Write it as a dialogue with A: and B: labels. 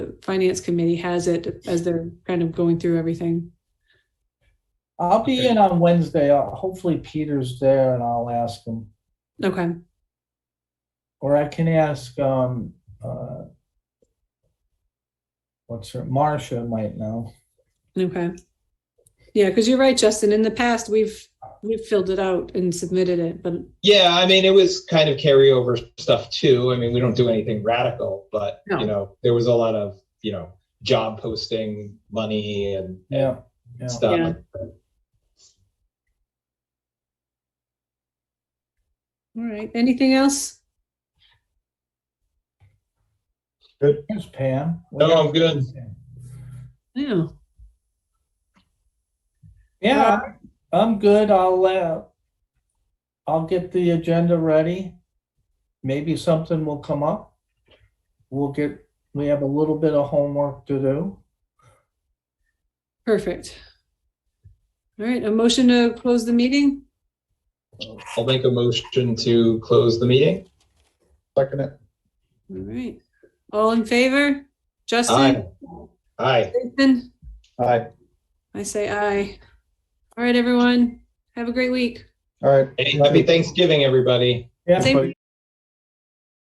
A: finance committee has it as they're kind of going through everything.
B: I'll be
C: Okay.
B: in on Wednesday. I'll- Hopefully Peter's there and I'll ask him.
A: Okay,
B: Or I can ask, um, uh, what's her, Marcia might know.
A: okay. Yeah, because you're right, Justin. In the past, we've we've filled it out and submitted it, but
C: Yeah, I mean, it was kind of carryover stuff too. I mean, we don't do anything radical, but
A: No.
C: you know, there was a lot of you know job posting money and, and
B: Yeah, yeah.
C: stuff.
A: Yeah. all right. Anything else?
B: Here's Pam.
C: No, I'm good.
A: Yeah.
B: Yeah, I'm good. I'll, uh, I'll get the agenda ready. Maybe something will come up. We'll get, we have a little bit of homework to do.
A: Perfect. All right, a motion to close the meeting.
C: I'll make a motion to close the meeting.
D: Second it.
A: All right. All in favor?
C: Aye.
A: Justin?
C: Aye.
A: Nathan?
D: Aye.
A: I say aye. All right, everyone. Have a great week.
D: All right.
C: Hey, happy Thanksgiving, everybody.
B: Yeah.
A: Same-
D: Everybody-